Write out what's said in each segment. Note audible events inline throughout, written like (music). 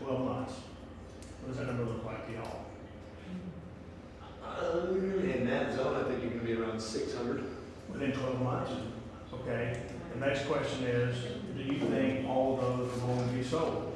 twelve months. What does that number look like to y'all? Uh, in that zone, I think you're gonna be around six hundred. Within twelve months? Okay, the next question is, do you think all of those are going to be sold?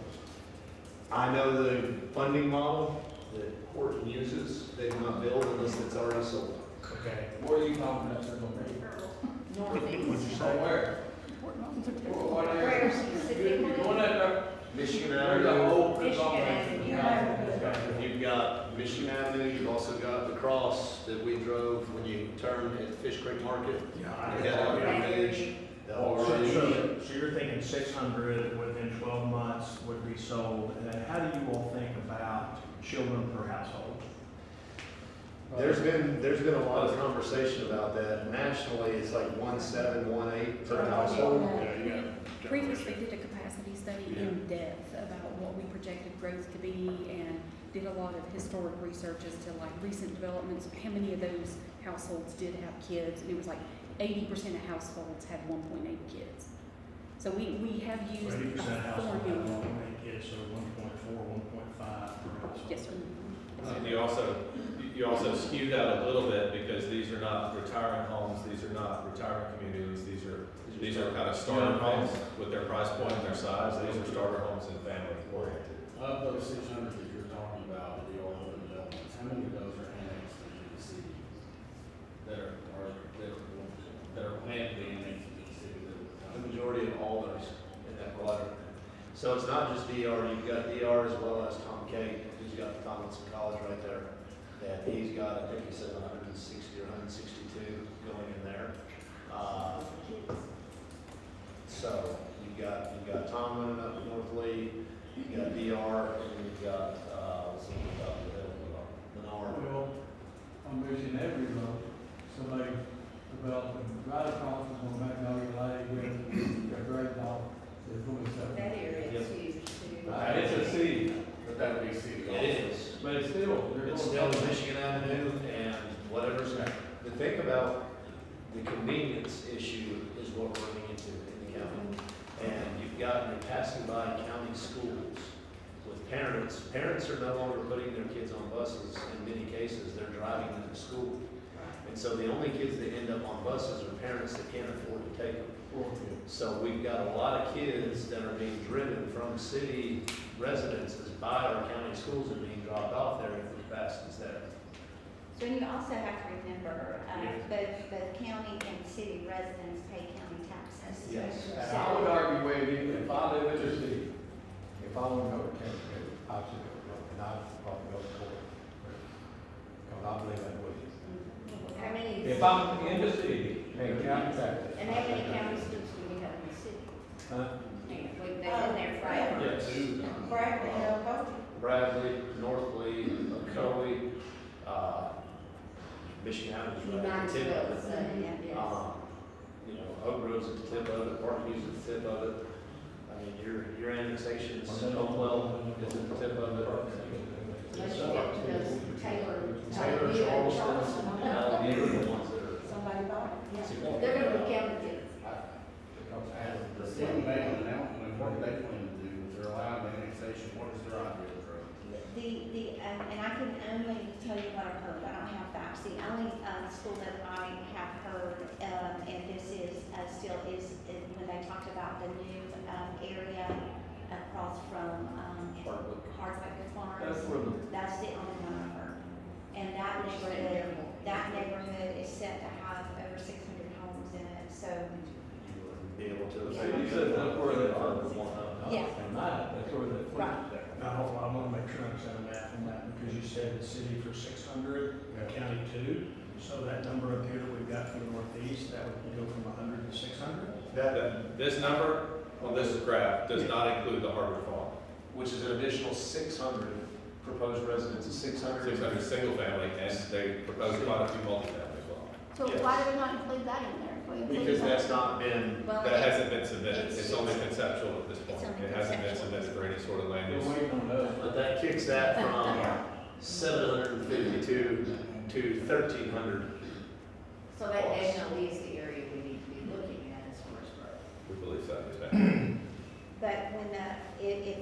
I know the funding model that Horton uses, they do not build unless it's already sold. Okay. Where are you confident they're gonna be? What'd you From say? where? What what Where area? You're specifically? going after, Michigan there's a Avenue, whole consolidation. Michigan Avenue. you've got Michigan Avenue, you've also got the cross that we drove when you turn at Fish Creek Market. Yeah. You I- got all your yeah. ridge, the So, whole ridge. so- so you're thinking six hundred within twelve months would be sold, and then how do you all think about children per household? There's been, there's been a lot of conversation about that. Nationally, it's like one seven, one eight per household. Previously did a capacity study in depth about what we projected growth to be and did a lot of historic research as to like recent developments, how many of those households did have kids, and it was like eighty percent of households had one point eight kids. So we, we have used Eighty a percent household have formula. one point eight kids, so one point four, one point five per household. Yes, sir. And you also, you also skewed out a little bit because these are not retirement homes, these are not retirement communities, these are, these are kind of starter homes with their price point and their size, these are starter homes and family oriented. Of those six hundred that you're talking about, the old home developments, how many of those are annexed into the city? That are, are, that are, that are planned to be annexed into the city that The would come? majority of all those in that quadrant. So it's not just DR, you've got DR as well as Tom K, who's got Tomlinson College right there. That he's got, I think he said hundred and sixty or hundred and sixty-two going in there. Uh, So you've got, you've got Tomlin up in North Lee, you've got DR, and you've got, uh, what's the one up in Menard. Well, I'm wishing every road, somebody developing right across from Magnolia Lake with a great dog, they're going to sell. That area is huge too. Uh, It's a city, But that would be city It also. is. but it's still, they're It's going still to. Michigan Avenue and whatever's next. The thing about the convenience issue is what we're running into in the county. And you've got, you're passing by county schools with parents. Parents are no longer putting their kids on buses. In many cases, they're driving them to school. And so the only kids that end up on buses are parents that can't afford to take them. So we've got a lot of kids that are being driven from city residences by our county schools and being dropped off there if the capacity is there. So you also have to remember, uh, both, both county and city residents pay county taxes. Yes. And I would argue with you, if I live in the city, if I want to go to Kansas City, I should go, to Kansas, and I should probably go to court. Because I believe that way. How many? If I'm in the city, paying county taxes. And how many county schools do we have in the city? Huh? Yeah, We've been there forever. Yes. Brad, Bradley, North Lee, Ocoee, uh, Michigan Avenue's right at the tip of it. uh, Um, You know, Oak Grove's at the tip of it, Parkview's at the tip of it. I mean, your, your annexation is, Hopewell is at the tip of it. Unless you get to those Taylor. uh, Taylor's, Charleston, and all the other ones that are. Somebody bought it, yeah. They're gonna be counted The city made an announcement, what they plan to do, if they're allowed annexation, what is their idea of growth? The, the, um, and I can only tell you what I've heard, I don't have facts, the only, um, school that I have heard, um, and this is, uh, still is, is when they talked about the new, um, area across from, um, Hardwick. Hardwick That's Farms. where the, That's the only one I've heard. And that neighborhood, that neighborhood is set to have over six hundred homes in it, so, you would Be able to. so you said that's where the, Yeah. and that, that's where the. Right. Now, I want to make sure I understand the math on that, because you said the city for six hundred, county two. So that number up here that we've got for the northeast, that would go from hundred to six hundred? That, That- This number on this graph does not include the Harvard Farm, which is an additional six hundred proposed residents, six hundred. six hundred single family, and they propose quite a few multifamily as So why do we not include that in there? If we include Because that- that's not been, well. well. That hasn't been submitted, it's only conceptual at this point, It's only it hasn't been conceptual. submitted for any sort of land They're use. waiting on us. but that kicks that from (laughs) seven hundred and fifty-two to thirteen hundred. So that definitely is the area we need to be looking at as far as growth. We believe so, yes, ma'am. But when the, if, if